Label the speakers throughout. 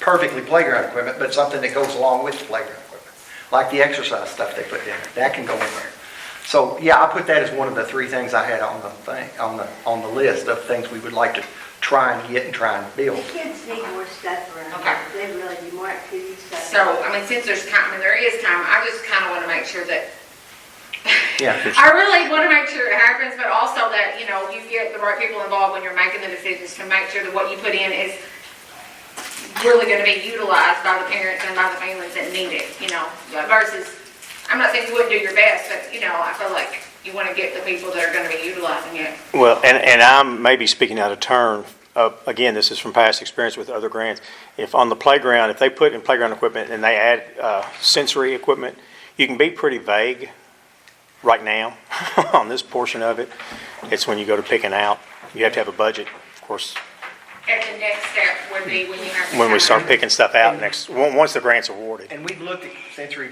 Speaker 1: perfectly playground equipment, but something that goes along with the playground equipment, like the exercise stuff they put in there, that can go in there. So, yeah, I put that as one of the three things I had on the thing, on the, on the list of things we would like to try and get and try and build.
Speaker 2: Kids need more stuff around.
Speaker 3: Okay.
Speaker 2: They really need more activities. stuff.
Speaker 3: So, I mean, since there's time, I mean, there is time, I just kind of want to make sure that,
Speaker 1: Yeah, it's-
Speaker 3: I really want to make sure it happens, but also that, you know, you get the right people involved when you're making the decisions to make sure that what you put in is really going to be utilized by the parents and by the families that need it, you know, versus, I'm not saying you wouldn't do your best, but, you know, I feel like you want to get the people that are going to be utilizing it.
Speaker 4: Well, and, and I'm maybe speaking out of turn. Uh, Again, this is from past experience with other grants. If on the playground, if they put in playground equipment and they add uh, sensory equipment, you can be pretty vague right now on this portion of it. It's when you go to picking out. You have to have a budget, of course,
Speaker 3: And the next step would be when you have. the
Speaker 4: when we start
Speaker 3: time.
Speaker 4: picking stuff out next, on- once the grant's awarded.
Speaker 1: And we've looked at sensory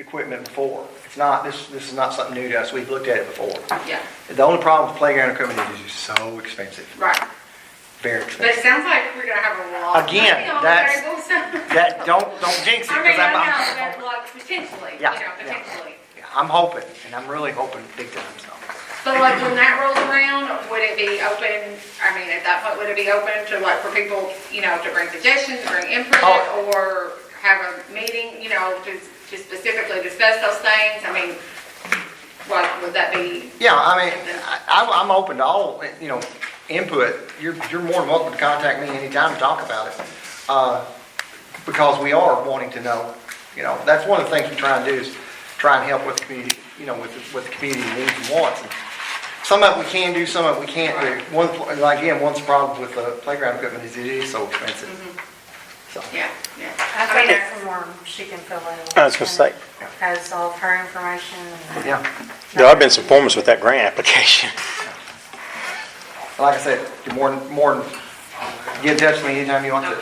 Speaker 1: equipment before. It's not, this, this is not something new to us, we've looked at it before.
Speaker 3: Yeah,
Speaker 1: The only problem with playground equipment is it's so expensive,
Speaker 3: right.
Speaker 1: very
Speaker 3: But
Speaker 1: expensive.
Speaker 3: it sounds like we're gonna have a lot.
Speaker 1: Again, that's- That, don't, don't jinx it,
Speaker 3: I mean,
Speaker 1: because
Speaker 3: I
Speaker 1: I'm,
Speaker 3: know,
Speaker 1: I'm-
Speaker 3: but like potentially, you
Speaker 1: Yeah,
Speaker 3: know,
Speaker 1: yeah.
Speaker 3: potentially.
Speaker 1: I'm hoping, and I'm really hoping big time, so.
Speaker 3: But like when that rolls around, would it be open, I mean, at that point, would it be open to like for people, you know, to bring suggestions, bring input?
Speaker 1: Oh.
Speaker 3: Or have a meeting, you know, to, to specifically discuss those things? I mean, like, would that be,
Speaker 1: Yeah, I mean, I, I'm open to all, you know, input. You're, you're more than welcome to contact me anytime and talk about it. Uh, because we are wanting to know, you know, that's one of the things we try and do is try and help with the community, you know, with, the- with the community needs and wants. And Some of it we can do, some of it we can't do. One, like, again, one's the problem with the playground equipment is it is so expensive.
Speaker 3: Mm-hmm.
Speaker 1: So,
Speaker 3: yeah, yeah.
Speaker 5: I've
Speaker 3: I
Speaker 5: got
Speaker 3: mean,
Speaker 5: a form she can fill in.
Speaker 4: I was gonna say.
Speaker 5: Has all of her information. and-
Speaker 1: yeah.
Speaker 4: There have been some forms with that grant application.
Speaker 1: Like I said, you're more, than- more, than- get in touch with me anytime you want to.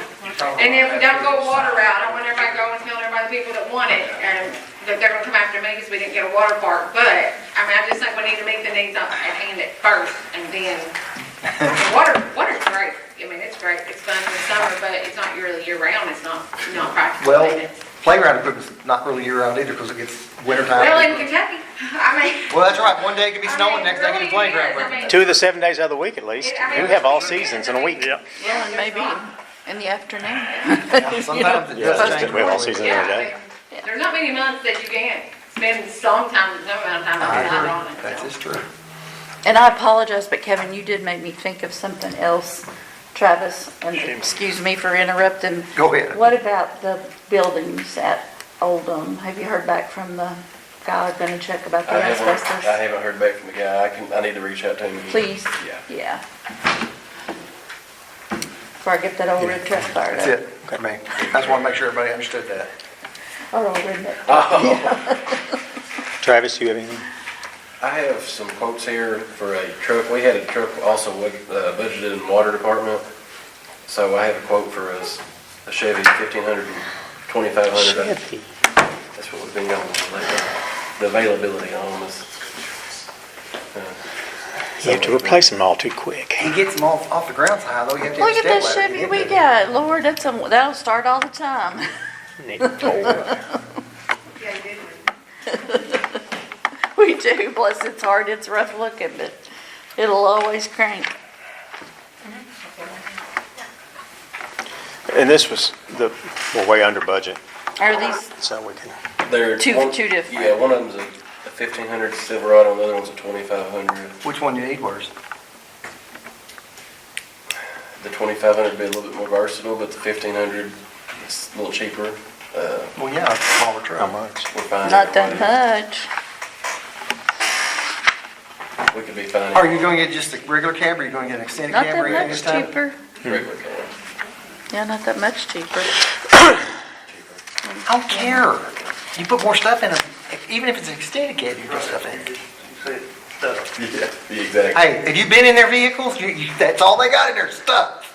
Speaker 3: And if we don't go water route, I want everybody to go and tell everybody, the people that want it, um, that they're gonna come after me because we didn't get a water park, but, I mean, I just think we need to meet the needs on- at hand at first, and then, and water, water's great, I mean, it's great, it's fun in the summer, but it's not really year round, it's not, not practical.
Speaker 1: Well, playground equipment's not really year-round either because it gets wintertime.
Speaker 3: Well, in Kentucky, I mean.
Speaker 1: Well, that's right, one day it could be
Speaker 3: I
Speaker 1: snowing,
Speaker 3: mean,
Speaker 1: next day it could be
Speaker 3: really it
Speaker 1: playground
Speaker 3: is. I mean,
Speaker 1: equipment.
Speaker 4: Two of the seven days out of the week at least.
Speaker 3: I mean,
Speaker 4: We have all seasons in a week.
Speaker 3: Yeah.
Speaker 6: Well, and maybe
Speaker 3: there's not-
Speaker 6: in the afternoon.
Speaker 1: Sometimes it
Speaker 4: Yeah,
Speaker 1: does
Speaker 4: that's-
Speaker 1: change.
Speaker 4: we have all
Speaker 1: really.
Speaker 4: season
Speaker 3: Yeah,
Speaker 4: every day.
Speaker 3: I mean, there's not many months that you can't spend some time, some amount of time
Speaker 1: I
Speaker 3: outside on it.
Speaker 1: agree, that's
Speaker 3: so.
Speaker 1: just true.
Speaker 6: And I apologize, but Kevin, you did make me think of something else. Travis, and excuse me for interrupting.
Speaker 1: Go ahead.
Speaker 6: What about the buildings at Oldham? Have you heard back from the guy gonna check about the
Speaker 7: I haven't, I
Speaker 6: asbestos?
Speaker 7: haven't heard back from the guy. I can, I need to reach out to him.
Speaker 6: Please?
Speaker 7: Yeah.
Speaker 6: Yeah. Before I get that old red truck fired
Speaker 1: That's
Speaker 6: up.
Speaker 1: it, I mean, I just want to make sure everybody understood that.
Speaker 6: Or old redneck.
Speaker 4: Travis, you have anything?
Speaker 7: I have some quotes here for a truck. We had a truck also uh, budgeted in water department. So I have a quote for us, a Chevy 1500, 2500. That's what we've been going with lately. The availability on them is. uh,
Speaker 4: You have to replace them all too quick.
Speaker 1: He gets them off, off the ground so high though, you have to have a
Speaker 6: Look
Speaker 1: step
Speaker 6: at this
Speaker 1: ladder to
Speaker 6: Chevy
Speaker 1: get
Speaker 6: we
Speaker 1: to it.
Speaker 6: got. Lord, that's, a- that'll start all the time.
Speaker 3: Yeah, you did.
Speaker 6: We do, plus it's hard, it's rough looking, but it'll always crank.
Speaker 4: And this was the, we're way under budget,
Speaker 6: Are these,
Speaker 4: so we can,
Speaker 7: They're.
Speaker 6: Two-
Speaker 7: one-
Speaker 6: two different.
Speaker 7: Yeah, one of them's a a 1500 Silverado, the other one's a 2500.
Speaker 1: Which one you need worse?
Speaker 7: The 2500 would be a little bit more versatile, but the 1500 is a little cheaper. Uh,
Speaker 1: Well, yeah, it's a smaller
Speaker 4: how
Speaker 1: truck.
Speaker 4: much?
Speaker 7: We're finding.
Speaker 6: not
Speaker 7: a
Speaker 6: that
Speaker 7: way-
Speaker 6: much.
Speaker 7: We could be finding.
Speaker 1: Are you going to get just a regular cab or are you going to get an extended
Speaker 6: Not
Speaker 1: cab or
Speaker 6: that
Speaker 1: anything this
Speaker 6: much
Speaker 1: time?
Speaker 6: cheaper.
Speaker 7: Regular car.
Speaker 6: Yeah, not that much cheaper.
Speaker 1: I don't care. You put more stuff in it, If- even if it's an extended cab, you put stuff in it.
Speaker 7: Yeah, the exact.
Speaker 1: Hey, have you been in their vehicles? You, you, that's all they got in their stuff.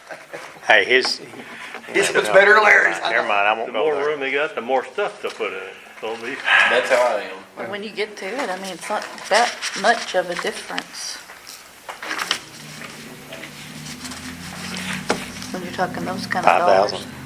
Speaker 4: Hey, his.
Speaker 1: This was better than Larry's. I know.
Speaker 4: Never mind, I
Speaker 8: The
Speaker 4: won't go
Speaker 8: more
Speaker 4: there.
Speaker 8: room they got, the more stuff to put in it. So it'll be-
Speaker 7: That's how I am.
Speaker 6: But When you get to it, I mean, it's not that much of a difference. When you're talking those kind of dollars.
Speaker 4: 5,000.